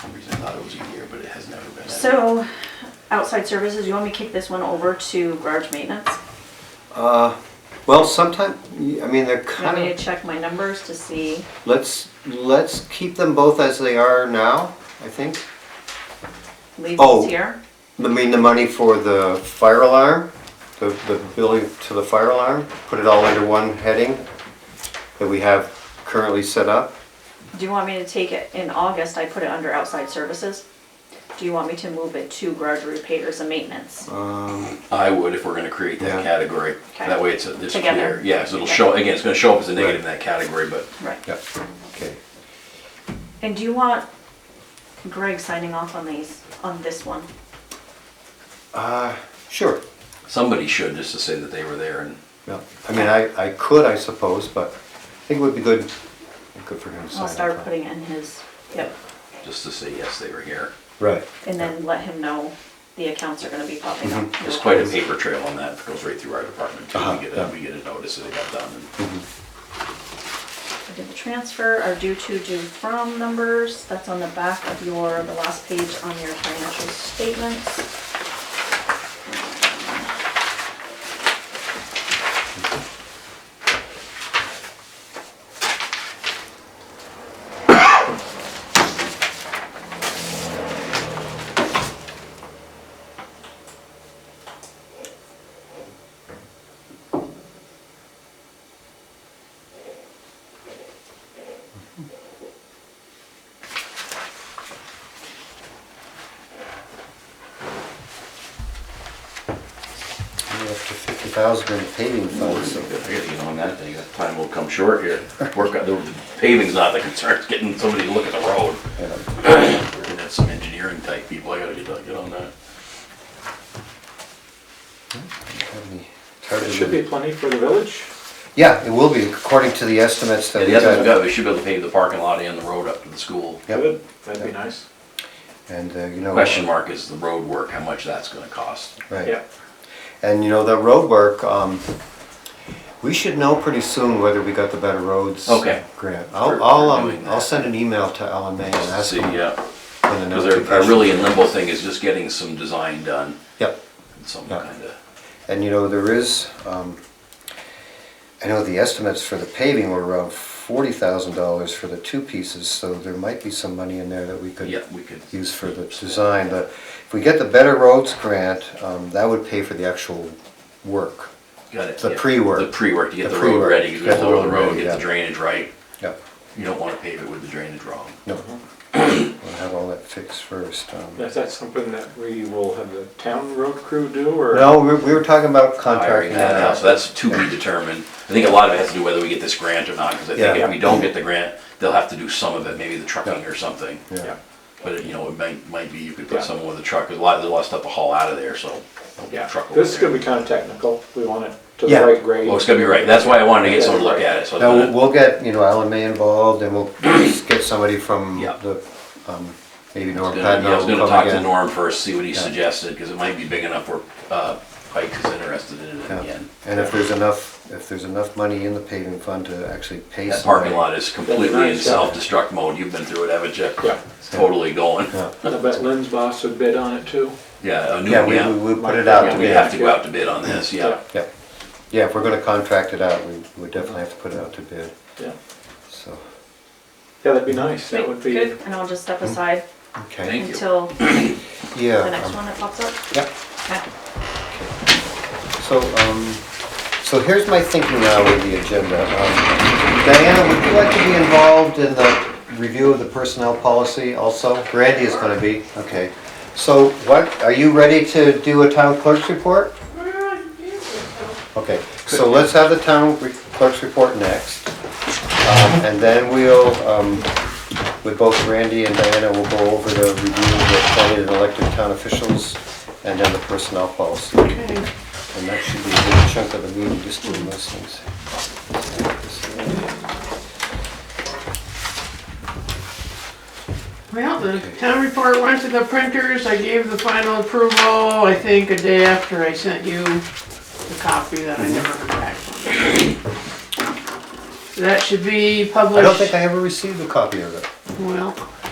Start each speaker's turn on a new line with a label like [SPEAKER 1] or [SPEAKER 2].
[SPEAKER 1] some reason I thought it was a year, but it has never been. that.
[SPEAKER 2] So, outside services, you want me to kick this one over to garage maintenance?
[SPEAKER 3] Uh, well, sometime, I mean, they're
[SPEAKER 2] You want me
[SPEAKER 3] kind
[SPEAKER 2] to
[SPEAKER 3] of,
[SPEAKER 2] check my numbers to see?
[SPEAKER 3] let's, let's keep them both as they are now, I think.
[SPEAKER 2] Leave
[SPEAKER 3] Oh.
[SPEAKER 2] this here?
[SPEAKER 3] I mean, the money for the fire alarm, the, the billing to the fire alarm, put it all under one heading that we have currently set up.
[SPEAKER 2] Do you want me to take it, in August, I put it under outside services? Do you want me to move it to garage repairs and maintenance?
[SPEAKER 3] Um,
[SPEAKER 1] I would if we're gonna create that
[SPEAKER 3] Yeah.
[SPEAKER 1] category.
[SPEAKER 2] Okay.
[SPEAKER 1] That way it's, a- it's
[SPEAKER 2] Together.
[SPEAKER 1] clear. Yeah, so it'll
[SPEAKER 2] Okay.
[SPEAKER 1] show, again, it's gonna show up as a negative in that category, but
[SPEAKER 2] Right.
[SPEAKER 3] yeah, okay.
[SPEAKER 2] And do you want Greg signing off on these, on this one?
[SPEAKER 3] Uh, sure,
[SPEAKER 1] somebody should, just to say that they were there and,
[SPEAKER 3] yeah. I mean, I, I could, I suppose, but I think it would be good, good for him to sign.
[SPEAKER 2] I'll
[SPEAKER 3] off
[SPEAKER 2] start
[SPEAKER 3] on.
[SPEAKER 2] putting it in his, yep,
[SPEAKER 1] just to say, yes, they were here.
[SPEAKER 3] Right.
[SPEAKER 2] and then let him know the accounts are gonna be popping up.
[SPEAKER 3] Mm-hmm.
[SPEAKER 1] There's quite a paper trail on that, that goes right through our department too.
[SPEAKER 3] Uh-huh,
[SPEAKER 1] We get
[SPEAKER 3] yeah.
[SPEAKER 1] a, we get a notice that it got done. and-
[SPEAKER 2] I did the transfer, our due to, due from numbers, that's on the back of your, the last page on your financial statements.
[SPEAKER 3] We're Up to fifty thousand in paving
[SPEAKER 1] I
[SPEAKER 3] funds, so.
[SPEAKER 1] gotta get on that thing, that time will come short here. Work on, the paving's not the concern, it's getting somebody to look at the road.
[SPEAKER 3] yeah.
[SPEAKER 1] That's some engineering type people, I gotta get, get on that.
[SPEAKER 3] Have any- tired
[SPEAKER 4] It
[SPEAKER 3] of
[SPEAKER 4] should
[SPEAKER 3] the-
[SPEAKER 4] be plenty for the village.
[SPEAKER 3] Yeah, it will be, according to the estimates that
[SPEAKER 1] Yeah,
[SPEAKER 3] we
[SPEAKER 1] the others
[SPEAKER 3] got.
[SPEAKER 1] we got, we should be able to pave the parking lot and the road up to the school.
[SPEAKER 3] Yep.
[SPEAKER 4] Good. That'd be nice.
[SPEAKER 3] And, uh, you know.
[SPEAKER 1] Question mark is the road work, how much that's gonna cost.
[SPEAKER 3] Right,
[SPEAKER 4] Yeah.
[SPEAKER 3] and you know, the road work, um, we should know pretty soon whether we got the Better Roads.
[SPEAKER 1] Okay.
[SPEAKER 3] Grant.
[SPEAKER 1] For-
[SPEAKER 3] I'll,
[SPEAKER 1] for
[SPEAKER 3] I'll, um,
[SPEAKER 1] doing that.
[SPEAKER 3] I'll send an email to Alan May and ask
[SPEAKER 1] See,
[SPEAKER 3] him.
[SPEAKER 1] yeah,
[SPEAKER 3] when the
[SPEAKER 1] cause our, our
[SPEAKER 3] notification-
[SPEAKER 1] really in limbo thing is just getting some design done,
[SPEAKER 3] Yep,
[SPEAKER 1] some
[SPEAKER 3] Yeah.
[SPEAKER 1] kinda,
[SPEAKER 3] and you know, there is, um, I know the estimates for the paving were around forty thousand dollars for the two pieces, so there might be some money in there that we could.
[SPEAKER 1] yeah, we could.
[SPEAKER 3] use for the design, but if we get the Better Roads grant, um, that would pay for the actual work.
[SPEAKER 1] Got it.
[SPEAKER 3] The
[SPEAKER 1] yeah.
[SPEAKER 3] pre-work.
[SPEAKER 1] The pre-work, to get
[SPEAKER 3] The
[SPEAKER 1] the road
[SPEAKER 3] pre-work,
[SPEAKER 1] ready, you
[SPEAKER 3] get
[SPEAKER 1] gotta
[SPEAKER 3] the
[SPEAKER 1] lower the
[SPEAKER 3] road
[SPEAKER 1] road,
[SPEAKER 3] ready,
[SPEAKER 1] get the
[SPEAKER 3] yeah.
[SPEAKER 1] drainage right.
[SPEAKER 3] Yep,
[SPEAKER 1] You don't wanna pave it with the drainage wrong.
[SPEAKER 3] no.
[SPEAKER 1] Mm-hmm.
[SPEAKER 3] We'll have all that fixed first. um.
[SPEAKER 4] Is that something that we will have the town road crew do or?
[SPEAKER 3] No, we we were talking about
[SPEAKER 1] hiring
[SPEAKER 3] contracting
[SPEAKER 1] that
[SPEAKER 3] that
[SPEAKER 1] out, so
[SPEAKER 3] out.
[SPEAKER 1] that's to be determined. I think a lot of it has to do whether we get this grant or not, because I think
[SPEAKER 3] Yeah.
[SPEAKER 1] if we don't get the grant, they'll have to do some of it, maybe the trucking or something.
[SPEAKER 3] Yeah.
[SPEAKER 1] But, it- you know, it might, might be you could put
[SPEAKER 4] Yeah.
[SPEAKER 1] someone with a truck, 'cause a lot, there's a lot of stuff to haul out of there, so. don't
[SPEAKER 4] Yeah.
[SPEAKER 1] truck over
[SPEAKER 4] This is
[SPEAKER 1] there.
[SPEAKER 4] gonna be kinda technical. We want it to
[SPEAKER 3] Yeah.
[SPEAKER 4] the right grade.
[SPEAKER 1] Well, it's gonna be right, that's why I wanted to get someone to look at it, so. it's
[SPEAKER 3] Now,
[SPEAKER 1] not-
[SPEAKER 3] we'll- we'll get, you know, Alan May involved and we'll get somebody from
[SPEAKER 1] Yeah.
[SPEAKER 3] the, um, maybe
[SPEAKER 1] I
[SPEAKER 3] Norm
[SPEAKER 1] was gonna-
[SPEAKER 3] Patton
[SPEAKER 1] yeah, I was
[SPEAKER 3] will
[SPEAKER 1] gonna
[SPEAKER 3] come
[SPEAKER 1] talk to
[SPEAKER 3] again.
[SPEAKER 1] Norm first, see what he suggested, because it might be big enough where, uh, Pike is interested in it
[SPEAKER 3] Yeah.
[SPEAKER 1] again.
[SPEAKER 3] And if there's enough, if there's enough money in the paving fund to actually pay
[SPEAKER 1] That
[SPEAKER 3] somebody.
[SPEAKER 1] parking lot is completely in
[SPEAKER 4] nice, yeah.
[SPEAKER 1] self-destruct mode, you've been through it, haven't you?
[SPEAKER 4] Yeah.
[SPEAKER 1] It's totally going.
[SPEAKER 3] Yeah.
[SPEAKER 4] I bet Lynn's boss would bid on it too.
[SPEAKER 1] Yeah, a new,
[SPEAKER 3] Yeah, we,
[SPEAKER 1] yeah.
[SPEAKER 3] we- we put it out
[SPEAKER 1] Yeah,
[SPEAKER 3] to
[SPEAKER 1] we
[SPEAKER 3] bid.
[SPEAKER 1] have to go out to bid on this, yeah.
[SPEAKER 3] Yeah, yeah, if we're gonna contract it out, we would definitely have to put it out to bid,
[SPEAKER 4] Yeah.
[SPEAKER 3] so,
[SPEAKER 4] Yeah, that'd be nice. That would be,
[SPEAKER 2] Good, and I'll just step aside
[SPEAKER 3] okay.
[SPEAKER 1] Mm-hmm. Thank you.
[SPEAKER 2] until the
[SPEAKER 3] Yeah.
[SPEAKER 2] next
[SPEAKER 3] um,
[SPEAKER 2] one that pops up.
[SPEAKER 3] Yep,
[SPEAKER 2] Okay.
[SPEAKER 3] so, um, so here's my thinking now with the agenda. Um, Diana, would you like to be involved in the review of the personnel policy also? Randy is gonna be, okay. So what, are you ready to do a town clerk's report? Okay, so let's have the town re- clerk's report next. Um, And then we'll, um, with both Randy and Diana, we'll go over the review of the appointed and elected town officials and then the personnel policy. And that should be a good chunk of the meeting, just doing those things.
[SPEAKER 5] Well, the town report went to the printers, I gave the final approval, I think a day after I sent you the copy that I never heard back from. So That should be
[SPEAKER 3] I don't
[SPEAKER 5] published,
[SPEAKER 3] think I ever received a copy of it.
[SPEAKER 5] well,